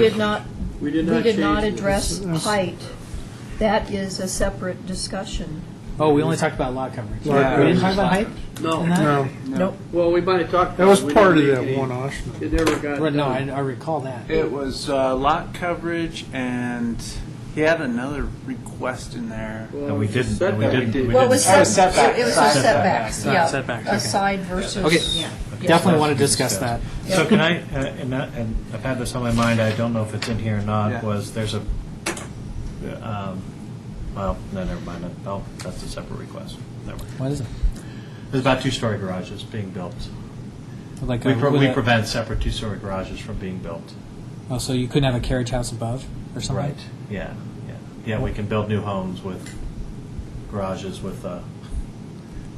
Did not, We we did not did not change address this. height. That is a separate discussion. Oh, we only talked about lot coverage. Lot Yeah, We didn't talk coverage. about height? No. in that? No, Nope. Well, we might have talked. that about was it. We part of never- that one, Austin. It never got Well, No, I done. I recall that. It was uh, lot coverage, and he had another request in there. Well, And we it was a didn't- and we setback. didn't- we Well, it was didn't- Oh, set- setback. It was a Setback. setbacks, yeah. Setbacks, A okay. side versus. Okay. yeah. Definitely want to discuss that. So can I, uh, and that- and I've had this on my mind, I don't know if it's in here or Yeah. not, was there's a, um, well, no, never mind, oh, that's a separate request. Never mind. What is it? There's about two-story garages being built. Like We a- pro- with we a- prevent separate two-story garages from being built. Oh, so you couldn't have a carriage house above or something? Yeah, yeah. Yeah, we can build new homes with garages with uh,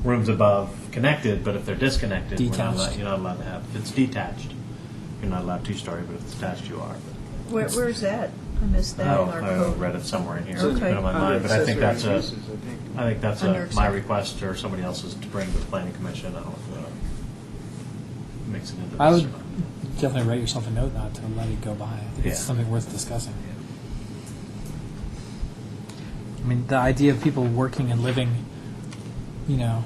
rooms above connected, but if they're disconnected, we're not allowed- Detached. you're not allowed to have, if it's detached, you're not allowed two-story, but if it's attached, you are. But- Where, where's that? I missed that Oh, in our I code. read it somewhere in here. It's Okay. been on my mind, but I think that's Accessory a, uses, I think. I think that's Under a, my accessory. request or somebody else's to bring to the planning commission. I don't know if that makes it into I this. would definitely write yourself a note not to let it go by. I think it's Yeah. something worth discussing. I mean, the idea of people working and living, you know,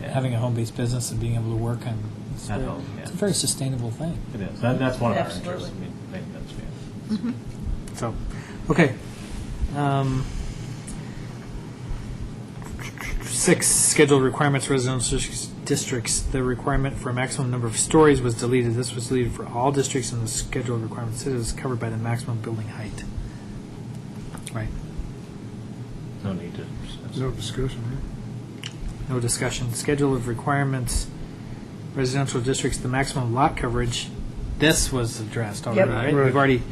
Yeah. having a home-based business and being able to work and it's, At very, home, yeah. it's a very sustainable thing. It is. That- That's one of our Absolutely. interests. I mean, I think that's, yeah. So, okay. Um, six scheduled requirements residential districts. The requirement for a maximum number of stories was deleted. This was deleted for all districts, and the scheduled requirements it is covered by the maximum building height. Right. No need to. No discussion, yeah. No discussion. Schedule of requirements, residential districts, the maximum lot coverage. This was addressed already, Yep. right? Right. We've already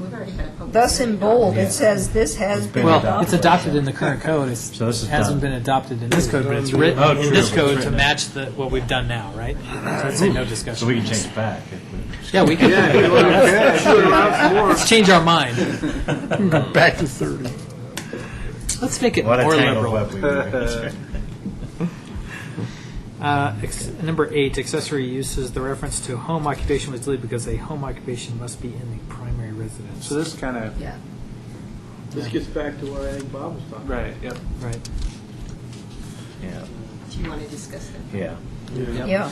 We've already had a public. Thus in bold, Yeah. it says this has It's been been Well, it's adopted. adopted in the current code, it So this is hasn't done. been adopted in this code, but it's Oh, written true. in this It's code to written. match the, what we've done now, right? So I'd say no discussion. So we can change it back. if we- Yeah, we Yeah, can, you want to- shoot around more. let's change our mind. Back to 30. Let's make it more What a tangled liberal. web we were in. That's right. Uh, ex- Number eight, accessory uses, the reference to home occupation was deleted because a home occupation must be in the primary residence. So this kind of, Yeah. This gets back to what I think Bob was talking. right, yep. Right. Yeah, Do you want to discuss that? yeah. Yeah,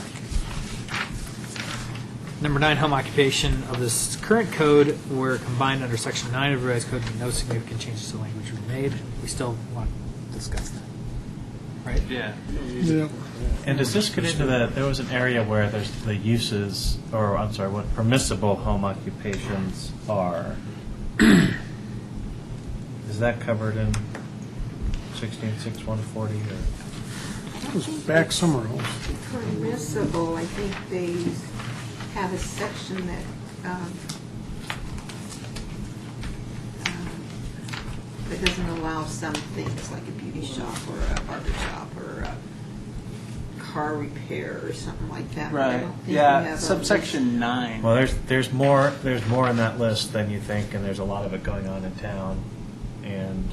Number nine, home occupation of this current code were combined under section nine of revised code, and no significant changes to language were made. We still want to discuss that, right? Yeah. Yeah. And does this get into the, there was an area where there's the uses, or I'm sorry, what permissible home occupations are? Is that covered in sixteen six one forty or? It was back somewhere else. Permissible, I think they have a section that, um, um, that doesn't allow some things, like a beauty shop or a barber shop or a car repair or something like that. but I Right, don't think we yeah, have a- subsection nine. Well, there's, there's more, there's more in that list than you think, and there's a lot of it going on in town. And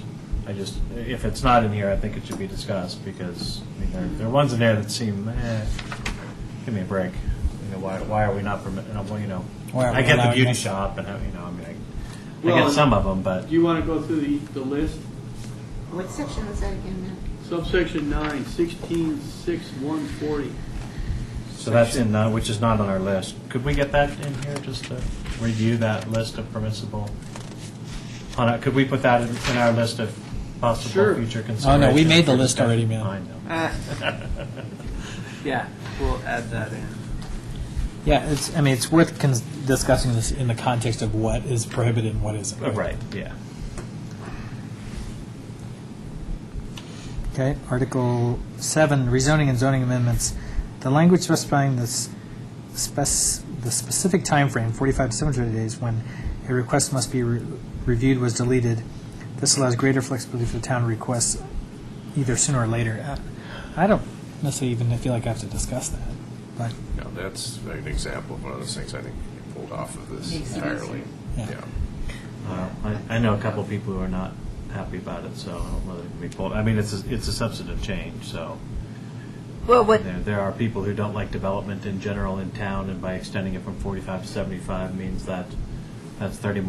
I just, if it's not in here, I think it should be discussed because, I mean, there, there are ones in there that seem, eh, give me a break. You know, why, why are we not permitting, well, you know, Why are we I get the allowing beauty this? shop and, I- you know, I mean, I, I Well, get some of them, but. Do you want to go through the, the list? What section was that again, Matt? Subsection nine, sixteen, six, one forty. So that's in, uh, which is not on our list. Could we get that in here, just to review that list of permissible? On our- Could we put that in in our list of Sure. possible future considerations? Oh, no, we made the for list already, discussion? man. I know. Uh. Yeah, we'll add that in. Yeah, it's, I mean, it's worth cons- discussing this in the context of what is prohibited and what isn't. Oh, Right, yeah. Okay, Article 7, rezoning and zoning amendments. The language specifying this spec- the specific time frame, 45 to 700 days, when a request must be re- reviewed was deleted. This allows greater flexibility for the town to request either sooner or later. Uh, I don't necessarily even feel like I have to discuss that, but, No, that's an example of one of those things I think you pulled off of this Makes sense. entirely. Yeah. Uh, I I know a couple of people who are not happy about it, so I don't know whether it can be pulled. I mean, it's, a- it's a substantive change, so. well, what, There, there are people who don't like development in general in town, and by extending it from 45 to 75 means that That's thirty more